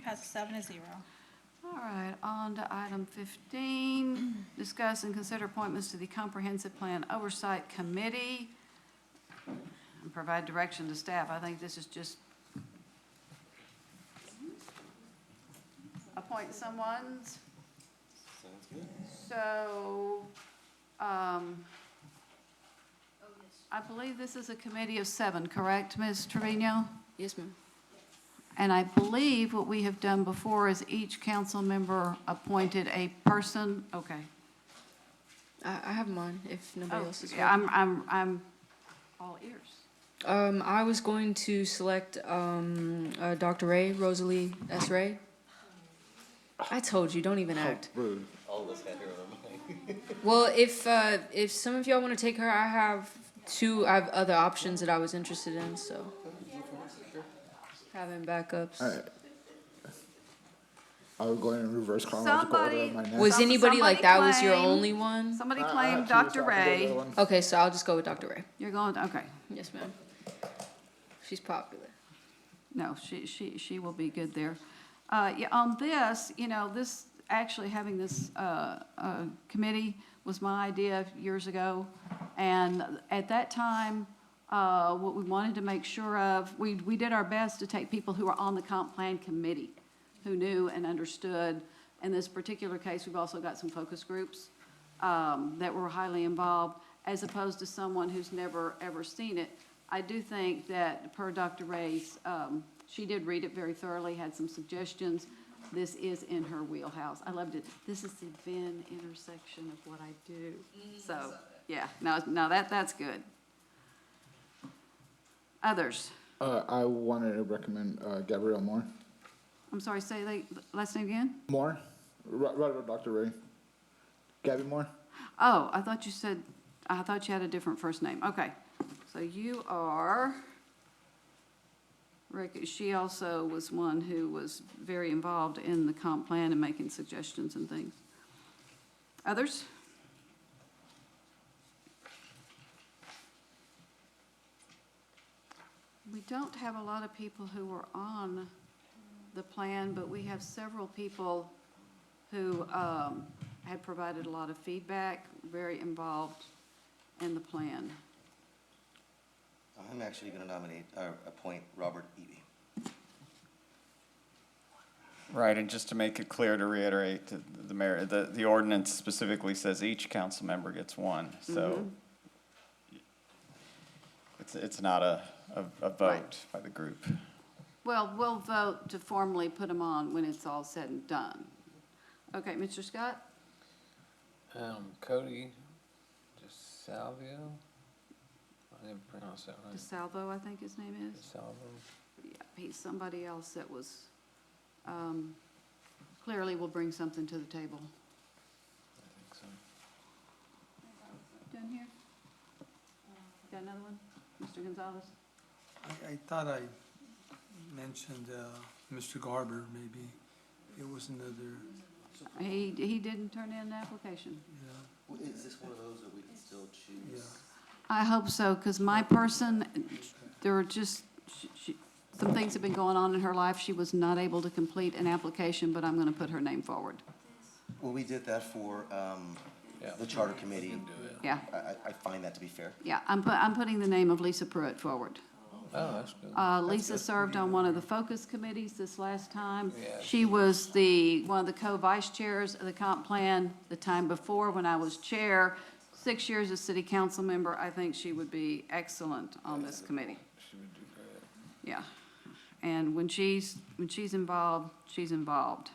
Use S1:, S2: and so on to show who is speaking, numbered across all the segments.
S1: passes seven to zero.
S2: All right, on to item fifteen, discuss and consider appointments to the Comprehensive Plan Oversight Committee and provide direction to staff. I think this is just appoint someone's.
S3: Sounds good.
S2: So, um, I believe this is a committee of seven, correct, Ms. Trevino?
S4: Yes, ma'am.
S2: And I believe what we have done before is each council member appointed a person, okay.
S4: I, I have mine if nobody
S2: Oh,
S4: else is.
S2: yeah, I'm, I'm, I'm all ears.
S4: Um, I was going to select um, uh, Dr. Ray, Rosalie S. Ray. I told you, don't even act.
S3: Rude. All of us got here with a mic.
S4: Well, if uh, if some of y'all want to take her, I have two. I have other options that I was interested in, so having backups.
S5: Alright. I would go in reverse chronological order
S2: Somebody-
S5: in my next.
S4: Was
S2: Some-
S4: anybody like
S2: somebody
S4: that? Was your
S2: claimed-
S4: only one?
S2: Somebody
S5: I- I
S2: claimed
S5: actually was
S2: Dr.
S5: talking to the
S2: Ray.
S5: other one.
S4: Okay, so I'll just go with Dr. Ray.
S2: You're going, okay.
S4: Yes, ma'am. She's popular.
S2: No, she, she, she will be good there. Uh, yeah, on this, you know, this, actually having this, uh, uh, committee was my idea years ago. And at that time, uh, what we wanted to make sure of, we, we did our best to take people who were on the comp plan committee, who knew and understood. In this particular case, we've also got some focus groups, um, that were highly involved, as opposed to someone who's never, ever seen it. I do think that per Dr. Ray's, um, she did read it very thoroughly, had some suggestions. This is in her wheelhouse. I loved it. This is the Venn intersection of what I do. So, yeah, no, no, that, that's good. Others?
S5: Uh, I wanted to recommend, uh, Gabrielle Moore.
S2: I'm sorry, say the last name again?
S5: Moore? Right, right about Dr. Ray. Gabby Moore?
S2: Oh, I thought you said, I thought you had a different first name. Okay. So you are, Rick, she also was one who was very involved in the comp plan and making suggestions and things. Others? We don't have a lot of people who were on the plan, but we have several people who um, had provided a lot of feedback, very involved in the plan.
S3: I'm actually gonna nominate, uh, appoint Robert Eby.
S6: Right, and just to make it clear, to reiterate, to the mayor, the, the ordinance specifically says each council member gets one, so it's, it's not a, a, a vote by the group.
S2: Well, we'll vote to formally put them on when it's all said and done. Okay, Mr. Scott?
S7: Um, Cody DeSalvio. I didn't pronounce that right.
S2: DeSalvo, I think his name is.
S7: DeSalvo.
S2: Yeah, He's somebody else that was, um, clearly will bring something to the table.
S7: I think so.
S2: Done here? Got another one? Mr. Gonzalez?
S8: I, I thought I mentioned, uh, Mr. Garber, maybe. It was another,
S2: He, he didn't turn in an application.
S8: yeah.
S3: W- Is this one of those that we can still choose?
S2: I hope so, because my person, there were just, she- she, some things have been going on in her life. She was not able to complete an application, but I'm going to put her name forward.
S3: Well, we did that for, um,
S7: Yeah.
S3: the charter committee.
S2: Yeah,
S3: I, I, I find that to be fair.
S2: yeah, I'm, pu- I'm putting the name of Lisa Pruitt forward.
S7: Oh, that's good.
S2: Uh, Lisa served on one of the focus committees this last time.
S7: Yeah.
S2: She was the, one of the co-vice chairs of the comp plan the time before when I was chair. Six years as city council member, I think she would be excellent on this committee.
S7: She would do great.
S2: Yeah, and when she's, when she's involved, she's involved.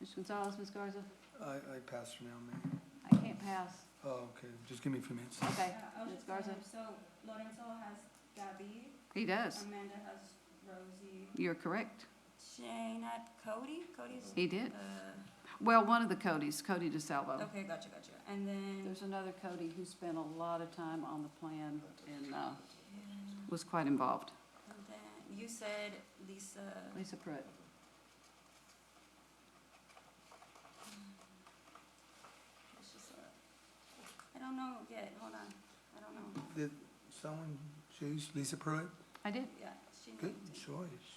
S2: Ms. Gonzalez, Ms. Garza?
S8: I, I passed her now, man.
S2: I can't pass.
S8: Oh, okay, just give me a few minutes.
S2: Okay,
S1: Uh, I was
S2: Ms.
S1: just
S2: Garza?
S1: wondering, So Lorenzo has Gabby,
S2: He does.
S1: Amanda has Rosie,
S2: You're correct.
S1: Shane had Cody, Cody's,
S2: He did.
S1: uh,
S2: Well, one of the Codys, Cody DeSalvo.
S1: okay, gotcha, gotcha. And then,
S2: Oh. There's another Cody who spent a lot of time on the plan and, uh, was quite involved.
S1: and then you said Lisa.
S2: Lisa Pruitt.
S1: it's just, uh, I don't know yet, hold on, I don't know,
S8: Did someone choose Lisa Pruitt?
S2: I did.
S1: yeah, she
S8: Good
S1: named it.
S8: choice.